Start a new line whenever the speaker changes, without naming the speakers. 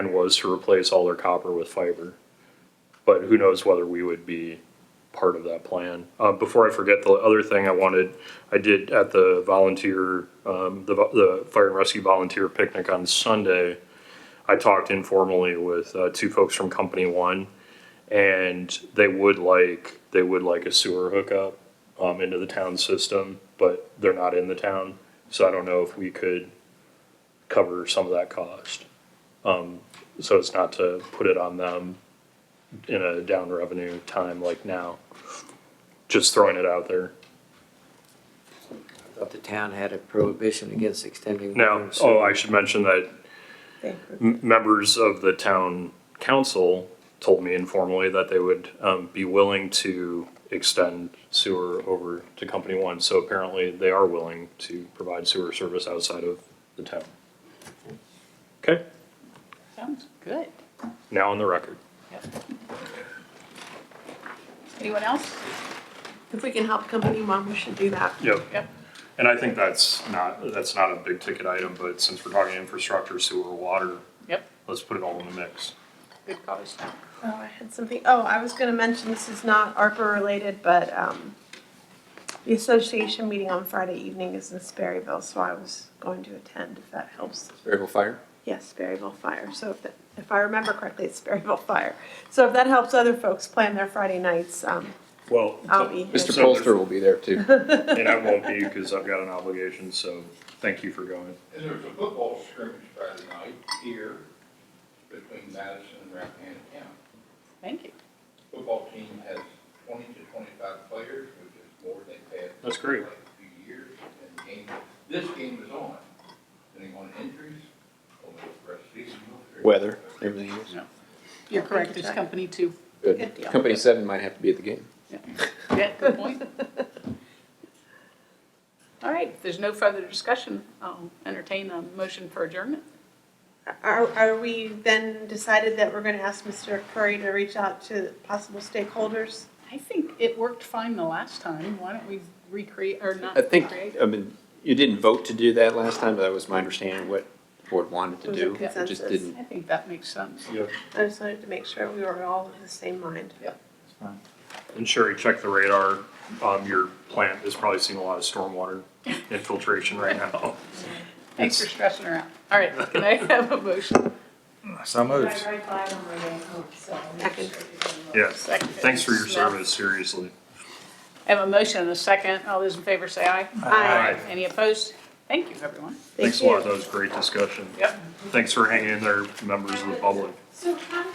plan was to replace all their copper with fiber. But who knows whether we would be part of that plan. Uh, before I forget, the other thing I wanted, I did at the volunteer, um, the, vo- the fire and rescue volunteer picnic on Sunday. I talked informally with, uh, two folks from company one and they would like, they would like a sewer hookup, um, into the town system, but they're not in the town. So I don't know if we could cover some of that cost. Um, so it's not to put it on them in a down revenue time like now. Just throwing it out there.
Thought the town had a prohibition against extending. water
Now,
and sewer.
oh, I should mention that m- members of the town council told me informally that they would um, be willing to extend sewer over to Company One. So apparently they are willing to provide sewer service outside of the town. Okay,
Sounds good.
now on the record.
Yep. Anyone else?
If we can help company one, we should do that.
Yep.
Yep.
And I think that's not, that's not a big ticket item, but since we're talking infrastructure, sewer, water,
Yep.
let's put it all in the mix.
Good cause.
Oh, I had something, oh, I was gonna mention, this is not ARPA related, but, um, the association meeting on Friday evening is in Sperryville, so I was going to attend if that helps.
Variable fire?
Yes, Sperryville Fire, so if, that- if I remember correctly, it's Sperryville Fire. So if that helps other folks plan their Friday nights, um,
Well.
I'll be here.
Mr.
So there's-
Polster will be there too.
And I won't be because I've got an obligation, so thank you for going.
And there was a football scrimmage Friday night here between Madison and Rappahannock County.
Thank you.
Football team has twenty to twenty-five players, which is more than they've had.
That's great.
in the last Few years, and the game, this game is on. Depending on injuries, over the rest of the season.
Weather, everything else.
You're correct, it's company two.
Good
Good.
deal.
Company seven might have to be at the game.
Yeah, good point. All right, if there's no further discussion, I'll entertain a motion for adjournment.
Are, are we then decided that we're gonna ask Mr. Curry to reach out to possible stakeholders?
I think it worked fine the last time. Why don't we recreate, or not
I think, uh,
recreate?
I mean, you didn't vote to do that last time, but that was my understanding what the board wanted to
Was
do.
it
It just
consensus?
didn't.
I think that makes sense.
Yeah.
I just wanted to make sure we were all of the same mind.
And Sherry, check the radar. Um, your plant is probably seeing a lot of stormwater infiltration right now.
Thanks for stressing her out. All right, can I have a motion?
So moved.
Right by them where they hook, so. I'll make
Second.
sure to give them a-
Yeah,
Second.
thanks for your service, seriously.
I have a motion and a second. All those in favor say aye.
Aye.
Any opposed? Thank you, everyone.
Thank
Thanks a lot.
you.
That was a great discussion.
Yep.
Thanks for hanging in there, members of the public.
So how